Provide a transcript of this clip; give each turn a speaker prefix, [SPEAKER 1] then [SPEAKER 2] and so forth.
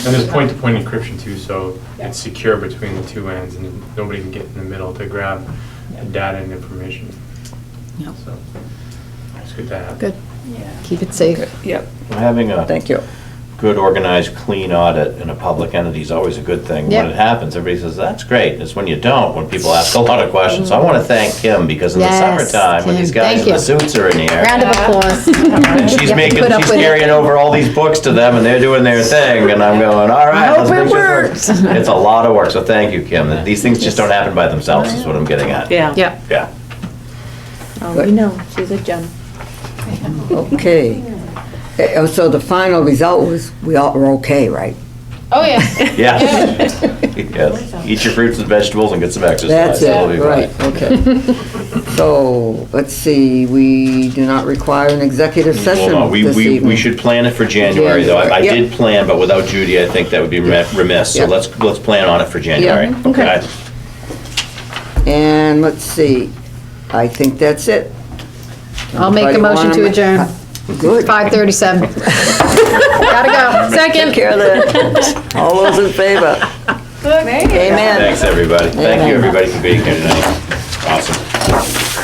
[SPEAKER 1] And there's point-to-point encryption too, so
[SPEAKER 2] Yeah.
[SPEAKER 1] it's secure between the two ends and nobody can get in the middle to grab the data and information.
[SPEAKER 3] Yep.
[SPEAKER 1] So It's good to have.
[SPEAKER 3] Good,
[SPEAKER 2] Yeah.
[SPEAKER 3] keep it safe.
[SPEAKER 2] Yep,
[SPEAKER 4] Having a
[SPEAKER 3] Thank you.
[SPEAKER 4] good, organized, clean audit in a public entity is always a good thing. When
[SPEAKER 3] Yeah.
[SPEAKER 4] it happens, everybody says, that's great. It's when you don't, when people ask a lot of questions. So I want to thank Kim because in the
[SPEAKER 3] Yes,
[SPEAKER 4] summertime, when these
[SPEAKER 3] Kim,
[SPEAKER 4] guys
[SPEAKER 3] thank
[SPEAKER 4] in the
[SPEAKER 3] you.
[SPEAKER 4] suits are in here.
[SPEAKER 3] Round of applause.
[SPEAKER 4] And
[SPEAKER 3] You have
[SPEAKER 4] she's
[SPEAKER 3] to
[SPEAKER 4] making,
[SPEAKER 3] put up
[SPEAKER 4] she's
[SPEAKER 3] with it.
[SPEAKER 4] carrying over all these books to them, and they're doing their thing, and I'm going, all right.
[SPEAKER 3] I hope
[SPEAKER 4] let's
[SPEAKER 3] it
[SPEAKER 4] make sure
[SPEAKER 3] works."
[SPEAKER 4] It's a lot of work, so thank you, Kim. These things just don't happen by themselves, is what I'm getting at.
[SPEAKER 5] Yeah.
[SPEAKER 3] Yep.
[SPEAKER 4] Yeah.
[SPEAKER 5] Oh, we know, she's a gem.
[SPEAKER 6] Okay. Eh, oh, So the final result was, we all were okay, right?
[SPEAKER 2] Oh, yeah.
[SPEAKER 4] Yeah. Yes. Eat your fruits and vegetables and get some
[SPEAKER 6] That's
[SPEAKER 4] exercise. It'll be
[SPEAKER 6] it,
[SPEAKER 4] fine.
[SPEAKER 6] right, okay. So, let's see, we do not require an executive session
[SPEAKER 4] Well, no, we,
[SPEAKER 6] this
[SPEAKER 4] we, we
[SPEAKER 6] evening.
[SPEAKER 4] should plan it for January, though. I I
[SPEAKER 6] January,
[SPEAKER 4] did
[SPEAKER 6] yep.
[SPEAKER 4] plan, but without Judy, I think that would be remi- remiss. So
[SPEAKER 6] Yep.
[SPEAKER 4] let's, let's plan on it for January.
[SPEAKER 6] Yeah, okay. And let's see, I think that's it.
[SPEAKER 3] I'll make a
[SPEAKER 6] Anybody
[SPEAKER 3] motion
[SPEAKER 6] wanna
[SPEAKER 3] to
[SPEAKER 6] ma-
[SPEAKER 3] adjourn.
[SPEAKER 6] Good.
[SPEAKER 3] 5:37. Gotta go.
[SPEAKER 6] Take
[SPEAKER 3] Second.
[SPEAKER 6] care of that. All those in favor?
[SPEAKER 2] There you go.
[SPEAKER 6] Amen.
[SPEAKER 4] Thanks, everybody. Thank you, everybody, for being here tonight. Awesome.